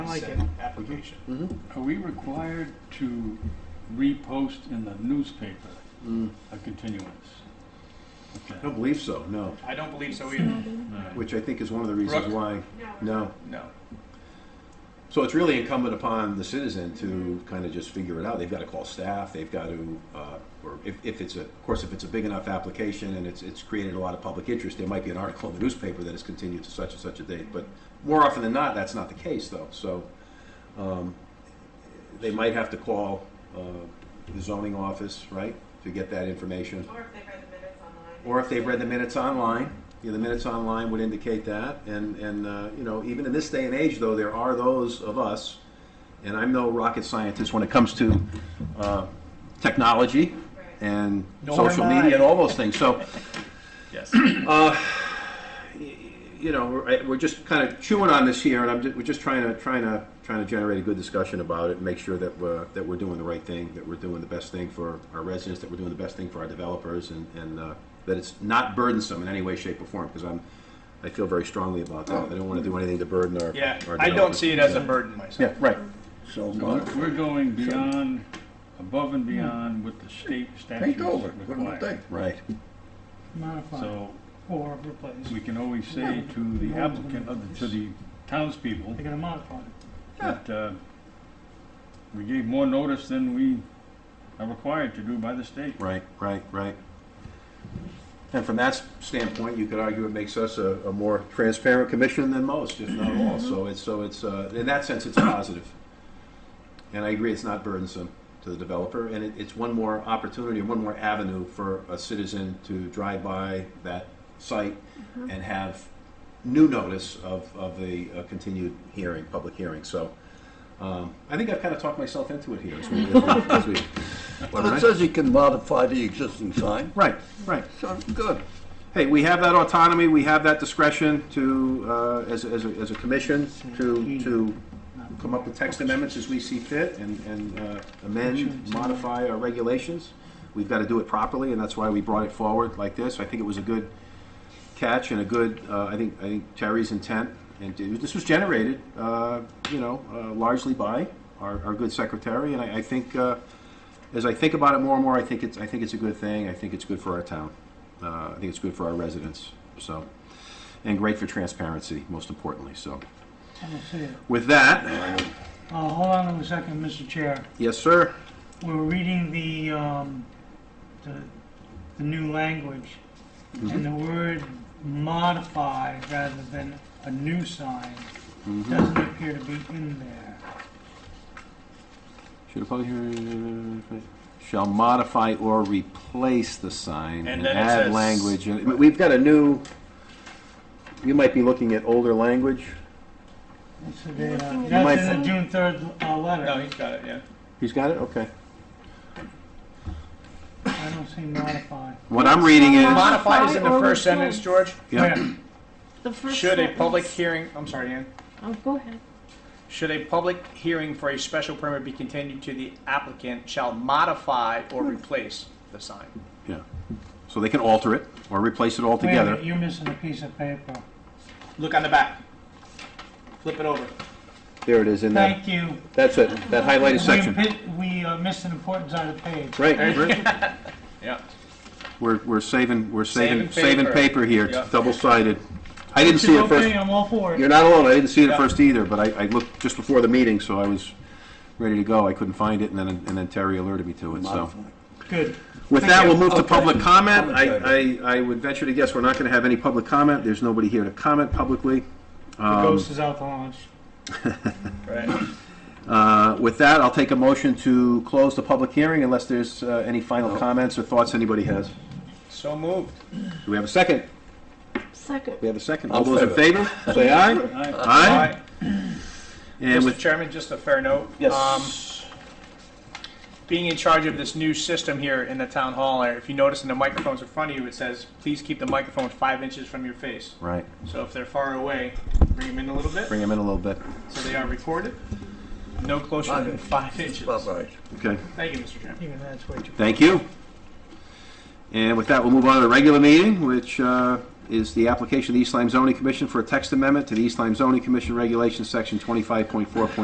like it. consent application. Are we required to repost in the newspaper Mm. a continuance? Okay. I don't believe so, no. I don't believe so either. Which I think is one of the reasons Brooke? why, no. No. So it's really incumbent upon the citizen to kind of just figure it out. They've got to call staff, they've got to, uh, or if, if it's a, of course, if it's a big enough application and it's, it's created a lot of public interest, there might be an article in the newspaper that is continued to such and such a date. But more often than not, that's not the case though, so, um, they might have to call, uh, the zoning office, right? To get that information. Or if they read the minutes online. Or if they've read the minutes online, you know, the minutes online would indicate that. And, and, uh, you know, even in this day and age, though, there are those of us, and I'm no rocket scientist when it comes to, uh, technology and Nor social am I. media and all those things. So, uh, Yes. you know, we're, we're just kind of chewing on this here, and I'm just, we're just trying to trying to trying to generate a good discussion about it, and make sure that we're that we're doing the right thing, that we're doing the best thing for our residents, that we're doing the best thing for our developers, and and uh, that it's not burdensome in any way, shape, or form. Because I'm, I feel very strongly about that. I don't want to do anything to burden our. Yeah, our I don't developers. see it as a burden myself. Yeah, right. So, So uh, we're- we're going beyond, above and beyond what the state statutes paint Hmm. over, put them require. thing. Right. modify So or replace. we can always say to the applicant, uh, to the townspeople, They're gonna modify it. that uh, we gave more notice than we are required to do by the state. Right, right, right. And from that standpoint, you could argue it makes us a, a more transparent commission than most, if not all. So it's, so it's, uh, in that sense, it's positive. And I agree, it's not burdensome to the developer, and it, it's one more opportunity, one more avenue for a citizen to drive by that site and have new notice of, of the uh, continued hearing, public hearing. So, um, I think I've kind of talked myself into it here. as we- as we- Well, it says you can modify the existing sign, Right, right. so, good. hey, we have that autonomy, we have that discretion to, uh, as, as, a, as a commission, to, to come up with text amendments as we see fit and, and uh, amend, modify our regulations. We've got to do it properly, and that's why we brought it forward like this. I think it was a good catch and a good, uh, I think, I think Terry's intent. And to- this was generated, uh, you know, uh, largely by our, our good secretary, and I, I think, uh, as I think about it more and more, I think it's, I think it's a good thing. I think it's good for our town. Uh, I think it's good for our residents, so, and great for transparency, most importantly, so. I don't see it. With that, Uh, hold on a second, Mr. Chair. yes, sir? We're reading the, um, the, the new language. Mm-hmm. And the word modify rather than a new sign Mm-hmm. doesn't appear to be in there. Should a public hearing, shall modify or replace the sign And and then it add says- language. And we- We've got a new, you might be looking at older language. That's the data. Looking at- That's You in the June third, uh, No, letter. he's got it, yeah. He's got it? Okay. I don't see modify. What I'm reading is, Modify is in the Modify or first sentence, replace. George. yeah, Where? The first Should a sentence. public hearing, I'm sorry, Ann. Oh, go ahead. Should a public hearing for a special permit be continued to the applicant shall modify or replace the sign? yeah. So they can alter it or replace it Wait a altogether. minute, you're missing a piece of paper. Look on the back. Flip it over. There it is in that, Thank you. that's it, that highlighted section. We pi- We uh, missed an important side of the page. Right, right. Yeah. We're, we're saving, we're saving, Saving saving paper. paper here, Yeah. double-sided. I didn't It's see it okay, first, I'm all for you're it. not alone, I didn't see it Yeah. at first either, but I, I looked just before the meeting, so I was ready to go, I couldn't find it, and then, and then Terry alerted me to it, so. Modify. Good. With that, we'll move to public comment, Public I, I, I would venture to guess we're not gonna have any public comment, there's nobody here to comment publicly. The ghost is out to lunch. Right. Uh, With that, I'll take a motion to close the public hearing unless there's uh, any final comments or thoughts anybody has. So moved. Do we have a second? Second. We have a second. All I'll those in favor, say aye. I- Aye. And Mr. with, Chairman, just a fair note. Um, yes. being in charge of this new system here in the town hall, if you notice in the microphones in front of you, it says, please keep the microphone five inches from your face. Right, So if they're far away, bring them in a little bit, bring him in a little bit. so they are recorded. No closer than five inches. All right. Okay, Thank you, Mr. Chairman. Even that's way too. thank you. And with that, we'll move on to the regular meeting, which uh, is the application of the East Lyme Zoning Commission for a text amendment to the East Lyme Zoning Commission Regulations, Section 25.4.1.